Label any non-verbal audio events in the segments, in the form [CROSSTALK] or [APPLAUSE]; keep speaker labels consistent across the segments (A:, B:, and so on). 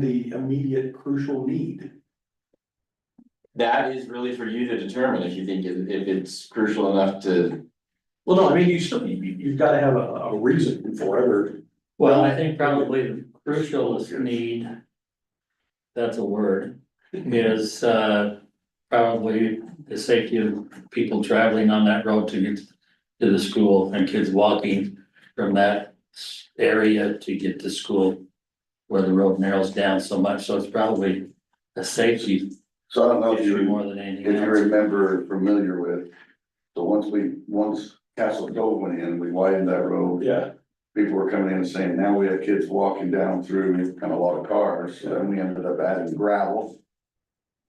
A: the immediate crucial need.
B: That is really for you to determine if you think if if it's crucial enough to,
A: Well, no, I mean, you still, you, you've gotta have a, a reason for it, or,
C: Well, I think probably the crucial need. That's a word, is uh probably the safety of people traveling on that road to get to the school and kids walking from that s- area to get to school. Where the road narrows down so much, so it's probably a safety
D: So I don't know if
C: issue
D: you,
C: more than
D: if
C: anything
D: you
C: else.
D: remember or familiar with, so once we, once Castle Cove went in, we widened that road.
A: yeah,
D: People were coming in and saying, now we have kids walking down through, kind of a lot of cars, so then we ended up adding gravel.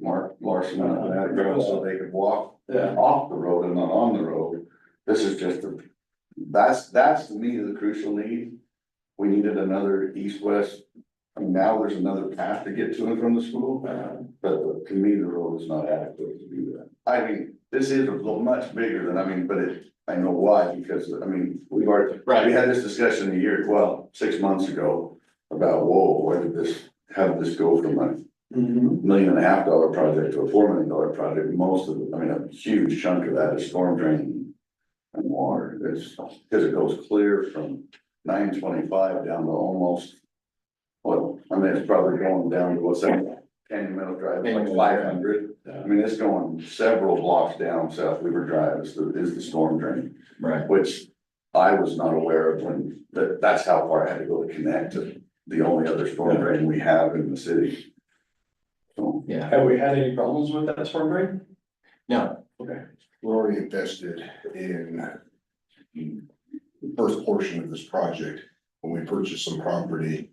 D: Mark Larson, uh, added gravel so they could walk
A: yeah.
D: off the road and not on the road. This is just a, that's, that's the need of the crucial need. We needed another east-west, I mean, now there's another path to get to and from the school.
A: Uh,
D: But to me, the road is not adequate to do that. I mean, this is a little much bigger than, I mean, but it, I know why, because, I mean, we've already, we
B: right,
D: had this discussion a year, well, six months ago. About, whoa, where did this, how did this go from a
A: mhm.
D: million and a half dollar project to a four million dollar project? Most of, it, I mean, a huge chunk of that is storm drain. And water, there's, because it goes clear from nine twenty-five down to almost. Well, I mean, it's probably going down to what's that, Canyon Meadow Drive, like
B: Canyon Meadow.
D: five hundred. I
A: Yeah.
D: mean, it's going several blocks down South Weaver Drive is the, is the storm drain,
B: right,
D: which I was not aware of when, that, that's how far I had to go to connect to the only other storm drain we have in the city. So,
B: yeah,
A: Have we had any problems with that storm drain?
B: no,
E: We're already invested in the first portion of this project, when we purchased some property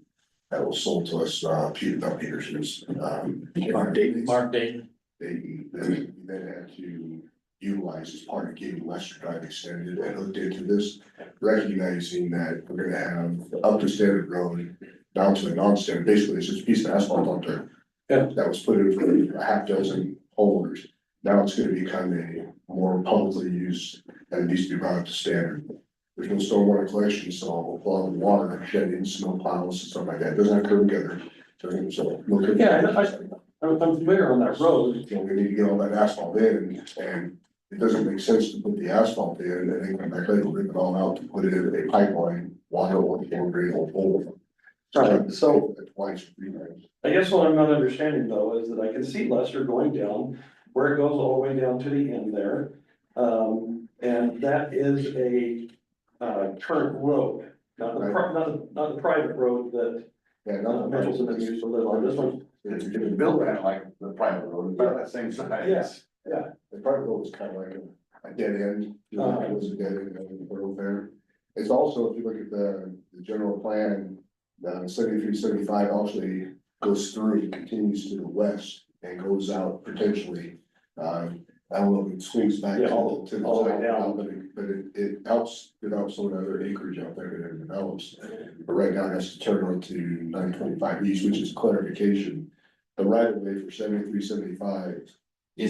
E: that was sold to us, uh, Peter, not Peterson's, um.
C: Mark Dayton, Mark Dayton,
E: They, they then had to utilize as part of getting Lester Drive extended and looked into this, recognizing that we're gonna have up to standard road. Down to a non-standard, basically it's just a piece of asphalt on there.
A: Yeah.
E: That was put in for a half dozen homeowners. Now it's gonna become a more publicly used and needs to be brought up to standard. There's no stormwater collection, so a lot of water shedding, snow piles and stuff like that, doesn't have curb gutter. Doesn't, so. no curb
A: Yeah, I know, I-
E: gutter.
A: I'm, I'm familiar on that road,
E: You know, we need to get all that asphalt in and it doesn't make sense to put the asphalt in and then come back later, rip it all out to put it in a pipeline, water or concrete or over.
A: Right,
E: So that's why it's rerouted.
A: I guess what I'm not understanding though is that I can see Lester going down, where it goes all the way down to the end there. Um, and that is a, uh, current road, not the, pri- not the, not the private road that
E: Yeah,
A: uh,
E: not
A: Mitchell's gonna use to live on, this one,
D: if you're gonna build that like the private road, about that same size.
A: Yes.
E: The private road is kind of like a- a dead end, you know, it was a dead end of the road there. It's also, if you look at the, the general plan, the seventy-three, seventy-five actually goes through, continues to the west and goes out potentially. Um, I don't know if it swings back to
A: Yeah, all-
E: the, to the
A: all the way
E: south,
A: down.
E: but it, but it, it helps develop some of the other acreage out there that it develops. But right now, it has to turn onto nine twenty-five east, which is clarification. The right of way for seventy-three, seventy-five
B: is,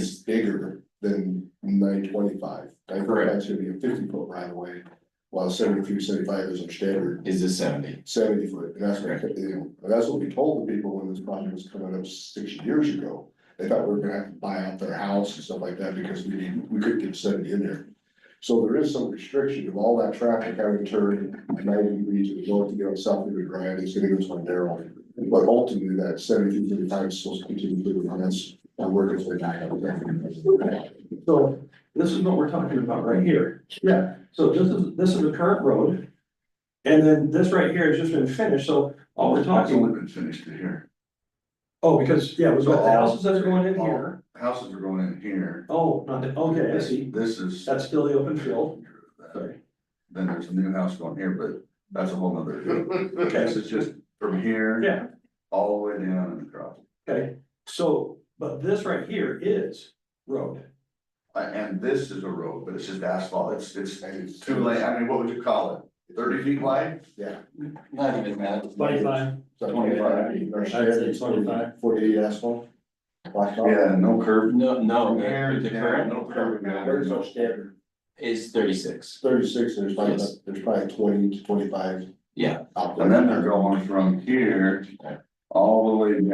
E: is bigger than nine twenty-five. Nine
B: Correct.
E: twenty-five should be a fifty-foot right of way, while seventy-three, seventy-five is our standard
B: is this seventy?
E: seventy-foot. And that's what, you know, and that's what we told the people when this project was coming up six years ago. They thought we were gonna have to buy out their house and stuff like that because we didn't, we couldn't get seventy in there. So there is some restriction of all that traffic having turned ninety degrees and going to get on South River Drive, it's gonna go to my narrow. But ultimately, that seventy-two, thirty-five is supposed to continue to run, that's, I'm working for that.
A: So this is what we're talking about right here.
E: Yeah.
A: So this is, this is the current road. And then this right here has just been finished, so all we're
D: That's
A: talking,
D: only been finished to here.
A: oh, because, yeah, it was about the houses that are going in here.
D: Houses are going in here.
A: Oh, not, the- okay, I see.
D: This is,
A: That's still the open field.
D: then there's a new house going here, but that's a
A: [LAUGHS]
D: whole nother.
A: Okay,
D: This is just from here.
A: yeah,
D: All the way down and across.
A: okay. So, but this right here is road.
D: Uh, and this is a road, but it's just asphalt, it's, it's two lane, I mean, what would you call it, thirty feet wide?
B: Not even that.
C: twenty-five,
E: Twenty-five.
C: I'd say 25.
E: Forty-eight asphalt. Blacktop.
D: Yeah, no curb.
B: No, no,
D: From here
B: the the
D: down,
B: current
D: No curb. no-
E: There's our standard.
B: is thirty-six,
E: thirty-six, there's probably,
B: Yes.
E: about- there's probably twenty to twenty-five.
B: Yeah.
E: Out
D: And then they're
E: there.
D: going from here all the way